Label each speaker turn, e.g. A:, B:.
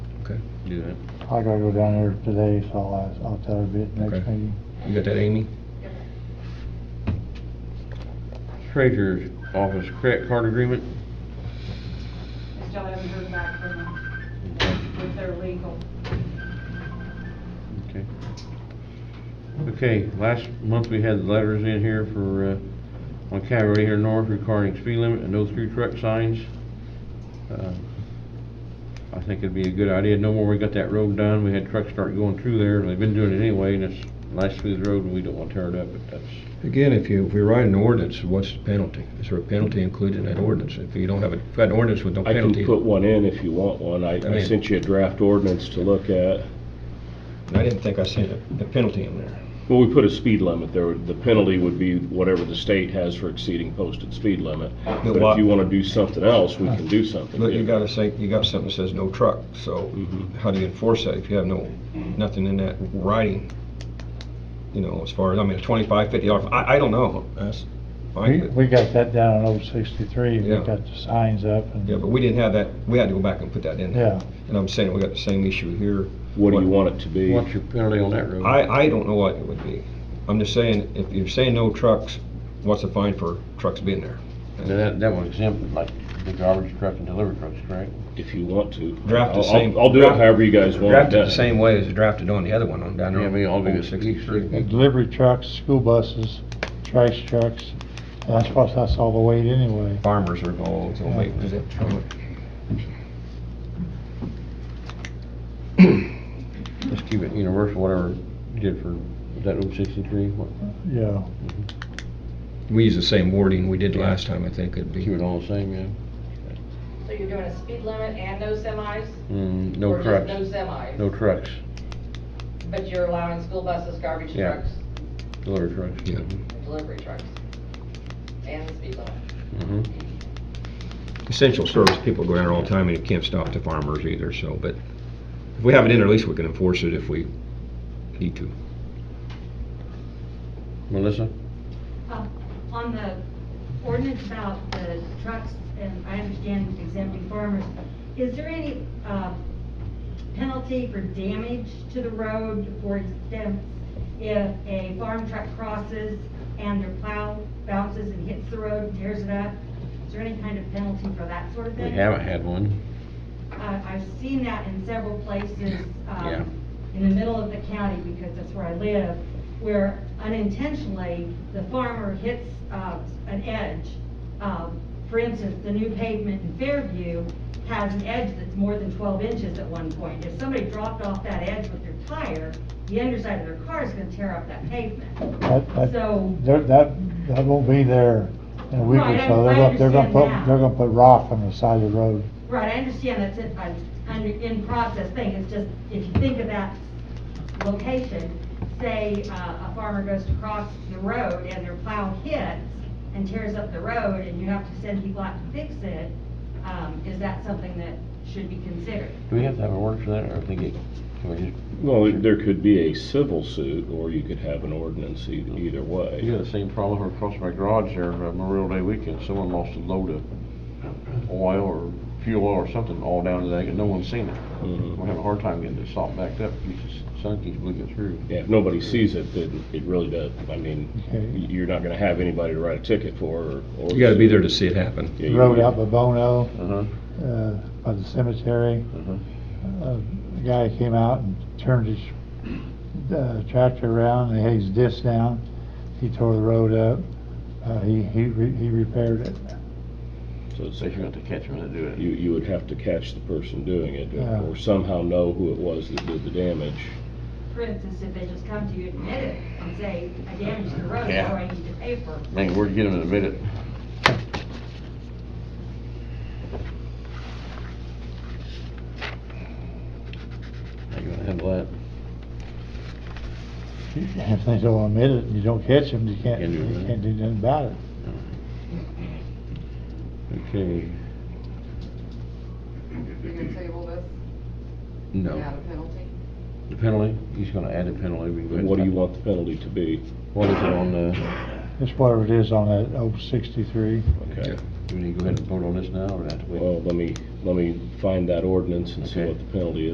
A: Okay, do that.
B: I gotta go down there today, so I'll, ask- I'll tell her a bit next
A: Okay.
B: meeting.
A: You got that, Amy? Treasurer's office credit card agreement?
C: I still haven't heard back from them with their legal.
A: Okay. Okay, last month we had the letters in here for, uh, on County Road here north regarding speed limit and no through truck signs. Uh, I think it'd be a good idea, no more we got that road done, we had trucks start going through there, and they've been doing it anyway, and it's nice smooth road, and we don't wanna tear it up, but that's,
D: Again, if you, if you write an ordinance, what's the penalty? Is there a penalty included in that ordinance? If you don't have a, if you had an ordinance with no
E: I can
D: penalty,
E: put one in if you want one.
D: I
E: I, I
D: mean-
E: sent you a draft ordinance to look at.
D: I didn't think I seen a, a penalty in there.
E: Well, we put a speed limit there. The penalty would be whatever the state has for exceeding posted speed limit. But
D: why-
E: if you want to do something else, we can do something.
D: Look, you
E: different.
D: gotta say, you got something that says no truck, so
A: Mm-hmm.
E: Mhm.
D: how do you enforce that if you have no, nothing in that writing? You know, as far as, I mean, twenty-five, fifty dollars, I, I don't know, that's
B: We,
D: fine, but,
B: we got that down in old sixty-three, we
D: Yeah.
B: got the signs up and,
D: yeah, but we didn't have that, we had to go back and put that in there.
B: yeah.
D: And I'm saying we got the same issue here.
E: What do you want it to be?
A: what's your penalty on that road?
D: I, I don't know what it would be. I'm just saying, if you're saying no trucks, what's the fine for trucks being there?
A: Now, That, that was exempt, like, the garbage truck and delivery trucks, correct?
E: If you want to.
D: Draft the
E: I'll- I'll-
D: same-
E: I'll do it
D: draft-
E: however you guys want it
D: Drafted
E: done.
D: the same way as drafted on the other one on down there.
A: Yeah, we all do
D: on
A: it.
D: 63.
B: And Delivery trucks, school buses, trash trucks, that's what, that's all the weight anyway.
D: Farmers are all, so make, is it?
A: Let's keep it universal, whatever you did for, was that Route sixty-three? What-
B: Yeah,
D: We use the same wording we did last time, I think it'd
A: Keep
D: be.
A: it all the same, yeah?
C: So you're doing a speed limit and no semis?
A: Mm, no
C: Or
A: trucks.
C: just no semis?
A: No trucks,
C: But you're allowing school buses, garbage
A: Yeah.
C: trucks,
A: delivery trucks.
D: Yeah.
C: and delivery trucks, and the speed limit?
A: Mhm.
D: Essential service, people go down there all the time and you can't stop the farmers either, so, but if we have it in, there, at least we can enforce it if we need to.
A: Melissa?
F: Um, On the ordinance about the trucks, and I understand exempting farmers, is there any uh, penalty for damage to the road for instance, if a farm truck crosses and their plow bounces and hits the road and tears it up? Is there any kind of penalty for that sort of
A: We
F: thing?
A: haven't had one.
F: Uh, I've seen that in several places,
A: Yeah.
F: um, in the middle of the county, because that's where I live, where unintentionally, the farmer hits, uh, an edge. Um, for instance, the new pavement in Fairview has an edge that's more than twelve inches at one point. If somebody dropped off that edge with their tire, the underside of their car is gonna tear up that pavement.
B: that,
F: So-
B: that, there- that, that won't be there in a week or
F: Right, I-
B: so. They're
F: I
B: gonna, they're gonna
F: understand
B: put,
F: that.
B: they're gonna put rock on the side of the road.
F: Right, I understand that's it, I, under, in process thing, it's just, if you think of that location, say, uh, a farmer goes to cross the road and their plow hits and tears up the road and you have to send people out to fix it, um, is that something that should be considered?
A: Do we have to have a word for that, or I think it, can we just,
E: Well, it- there could be a civil suit, or you could have an ordinance e- either way.
A: you got the same problem over across my garage there, uh, Memorial Day weekend, someone lost a load of oil or fuel oil or something all down to that, and no one's seen it.
E: Mhm.
A: We're having a hard time getting this salt backed up, Jesus, sun keeps bleeding through.
E: Yeah, if nobody sees it, then it really does, I mean,
B: Okay.
E: you're not gonna have anybody to write a ticket for, or. or-
D: You gotta be there to see it happen.
E: Yeah, you-
B: Road out by Bono,
A: Uh-huh,
B: uh, by the cemetery.
A: uh-huh.
B: Uh, The guy came out and turned his uh, tractor around, and had his disc down. He tore the road up. Uh, He, he re- he repaired it.
E: So it's-
A: So you got to catch them to do it.
E: You, you would have to catch the person doing it,
B: Yeah.
E: or somehow know who it was that did the damage.
F: For instance, if they just come to you and admit it and say, I damaged the road,
A: Yeah.
F: so I need to pay for it.
A: Man, where'd you get them in a minute? How you gonna handle that?
B: If they don't admit it, and you don't catch them, you can't,
A: Can't do
B: you
A: nothing.
B: can't do nothing about it.
A: Okay,
G: You're gonna table this without
A: no,
G: a penalty?
A: the penalty, he's gonna add a penalty. We go ahead and
E: What do you
A: talk-
E: want the penalty to be?
A: What is it on uh, the,
B: That's whatever it is on that old sixty-three.
E: Okay, Uh,
A: do we need to go ahead and vote on this now, or do I have to wait?
E: well, let me, let me find that ordinance and see
A: Okay.
E: what the penalty is.